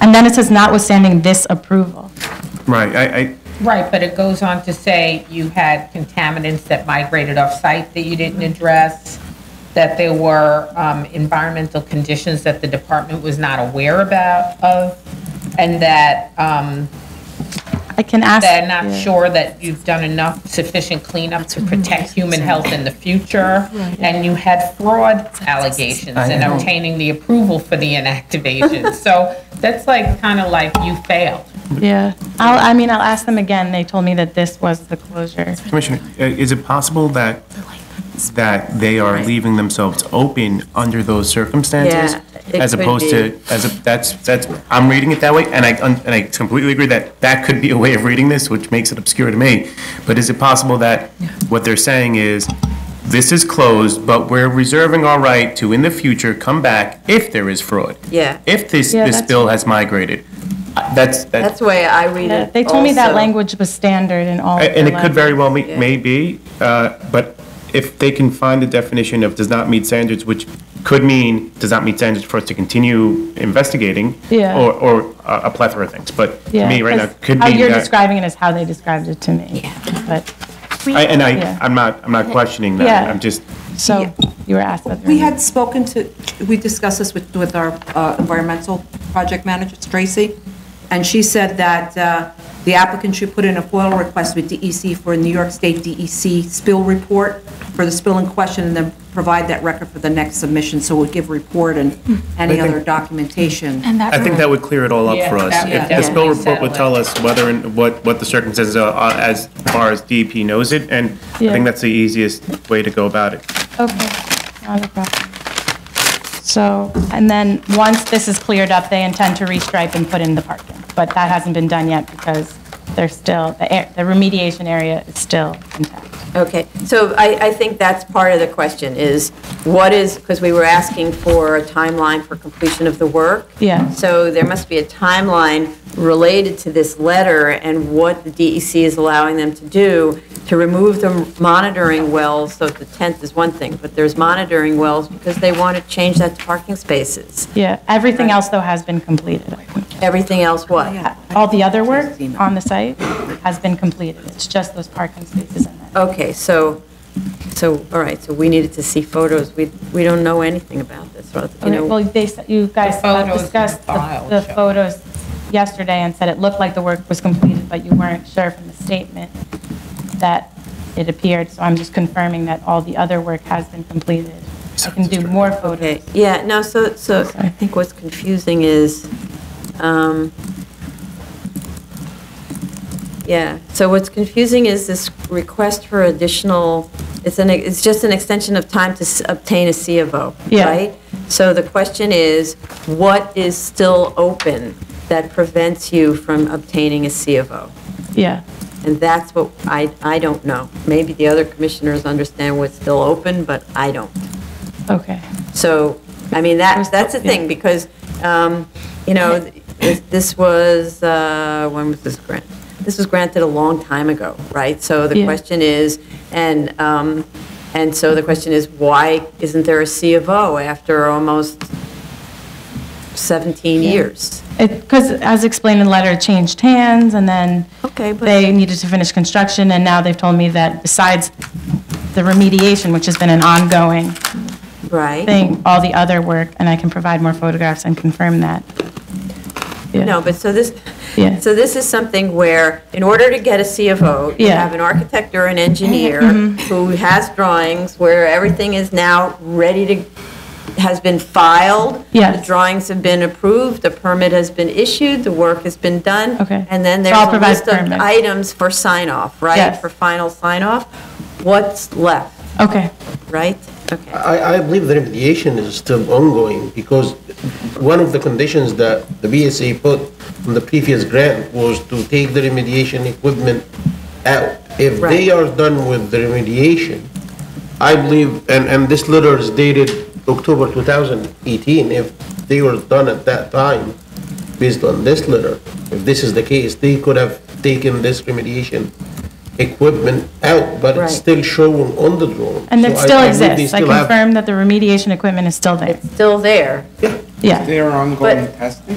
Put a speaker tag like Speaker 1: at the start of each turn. Speaker 1: And then it says notwithstanding this approval.
Speaker 2: Right, I, I,
Speaker 3: Right, but it goes on to say you had contaminants that migrated off-site that you didn't address, that there were um, environmental conditions that the department was not aware about of, and that um,
Speaker 1: I can ask.
Speaker 3: they're not sure that you've done enough sufficient cleanup to protect human health in the future, and you had fraud allegations in obtaining the approval for the inactivation. So that's like, kind of like you failed.
Speaker 1: Yeah, I'll, I mean, I'll ask them again. They told me that this was the closure.
Speaker 2: Commissioner, uh, is it possible that, that they are leaving themselves open under those circumstances?
Speaker 4: it
Speaker 2: As
Speaker 4: could
Speaker 2: opposed to, as, a that's, that's, I'm reading it that way, and I, and I completely agree that that could be a way of reading this, which makes it obscure to me. But is it possible that what they're saying is, this is closed, but we're reserving our right to, in the future, come back if there is fraud?
Speaker 4: Yeah.
Speaker 2: If this,
Speaker 1: Yeah,
Speaker 2: this
Speaker 1: that's-
Speaker 2: bill has migrated? Uh, That's, that's
Speaker 4: That's the way I read it.
Speaker 1: They told me that
Speaker 4: also.
Speaker 1: language was standard in all. of
Speaker 2: And
Speaker 1: their
Speaker 2: it could very well be-
Speaker 4: Yeah.
Speaker 2: may be, uh, but if they can find the definition of does not meet standards, which could mean does not meet standards for us to continue investigating.
Speaker 1: Yeah.
Speaker 2: Or, or a a plethora of things, but to
Speaker 1: Yeah,
Speaker 2: me right now,
Speaker 1: 'cause
Speaker 2: could
Speaker 1: How
Speaker 2: mean
Speaker 1: you're
Speaker 2: that.
Speaker 1: describing it is how they described it to me. But,
Speaker 2: I- And I,
Speaker 1: Yeah.
Speaker 2: I'm not, I'm not questioning that,
Speaker 1: Yeah.
Speaker 2: I'm just,
Speaker 1: so, you were asked whether.
Speaker 5: We had spoken to, we discussed this with, with our uh, environmental project manager, Tracy, and she said that uh, the applicant should put in a FOIL request with DEC for a New York State DEC spill report for the spill in question, and then provide that record for the next submission, so we'll give report and
Speaker 1: Hmm.
Speaker 5: any other documentation.
Speaker 2: I think that would clear it all up for
Speaker 3: Yeah,
Speaker 2: us.
Speaker 3: that would
Speaker 2: If the spill
Speaker 3: definitely
Speaker 2: report would
Speaker 3: settle
Speaker 2: tell us whether, and what, what the circumstances are uh, as far as DEP knows it, and I
Speaker 1: Yeah.
Speaker 2: think that's the easiest way to go about it.
Speaker 1: Okay, not a problem. So, and then, once this is cleared up, they intend to restripe and put in the parking. But that hasn't been done yet because they're still, the air- the remediation area is still intact.
Speaker 4: Okay, so I, I think that's part of the question is, what is, because we were asking for a timeline for completion of the work.
Speaker 1: Yeah.
Speaker 4: So there must be a timeline related to this letter and what the DEC is allowing them to do to remove the monitoring wells, so the tenth is one thing, but there's monitoring wells because they want to change that to parking spaces.
Speaker 1: Yeah, everything
Speaker 4: Right.
Speaker 1: else, though, has been completed.
Speaker 4: Everything else what?
Speaker 1: All the other work on the site has been completed. It's just those parking spaces in there.
Speaker 4: Okay, so, so, all right, so we needed to see photos. We, we don't know anything about this, you
Speaker 1: Okay,
Speaker 4: know.
Speaker 1: Well, they, said- you guys
Speaker 3: The photos
Speaker 1: discussed
Speaker 3: in the
Speaker 1: the-
Speaker 3: file
Speaker 1: the
Speaker 3: show.
Speaker 1: photos yesterday and said it looked like the work was completed, but you weren't sure from the statement that it appeared. So I'm just confirming that all the other work has been completed. I can do more photos.
Speaker 4: Okay, yeah, no, so, so I think what's confusing is, um, yeah, so what's confusing is this request for additional, it's an, it's just an extension of time to s- obtain a C of O,
Speaker 1: Yeah.
Speaker 4: right? So the question is, what is still open that prevents you from obtaining a C of O?
Speaker 1: Yeah,
Speaker 4: And that's what I, I don't know. Maybe the other commissioners understand what's still open, but I don't.
Speaker 1: okay.
Speaker 4: So, I mean, that, that's the thing, because, um, you know, this- this was, uh, when was this grant? This was granted a long time ago, right? So the
Speaker 1: Yeah.
Speaker 4: question is, and, um, and so the question is, why isn't there a C of O after almost 17 years?
Speaker 1: Because as explained in the letter, it changed hands, and then
Speaker 4: Okay, but-
Speaker 1: they needed to finish construction, and now they've told me that besides the remediation, which has been an ongoing
Speaker 4: Right?
Speaker 1: thing, all the other work, and I can provide more photographs and confirm that. Yeah.
Speaker 4: No, but so this,
Speaker 1: Yeah.
Speaker 4: so this is something where, in order to get a C of O, you
Speaker 1: Yeah. Mm-hmm.
Speaker 4: have an architect or an engineer who has drawings where everything is now ready to, has been filed.
Speaker 1: Yes.
Speaker 4: The drawings have been approved, the permit has been issued, the work has been done.
Speaker 1: Okay.
Speaker 4: And then
Speaker 1: So
Speaker 4: there's
Speaker 1: I'll
Speaker 4: a
Speaker 1: provide
Speaker 4: list of
Speaker 1: permit.
Speaker 4: items for sign-off, right?
Speaker 1: Yes.
Speaker 4: For final sign-off. What's left,
Speaker 1: Okay,
Speaker 4: right? Okay,
Speaker 6: I, I believe the remediation is still ongoing because one of the conditions that the BSA put on the previous grant was to take the remediation equipment out. If they
Speaker 4: Right.
Speaker 6: are done with the remediation, I believe, and, and this letter is dated October 2018, if they were done at that time, based on this letter, if this is the case, they could have taken this remediation equipment out, but
Speaker 4: Right.
Speaker 6: it's still shown on the drawing.
Speaker 1: and it
Speaker 6: So I-
Speaker 1: still
Speaker 6: I believe they
Speaker 1: exists. I
Speaker 6: still have-
Speaker 1: confirm that the remediation equipment is still there.
Speaker 4: still there.
Speaker 6: Yeah.
Speaker 1: Yeah.
Speaker 7: There are ongoing testing?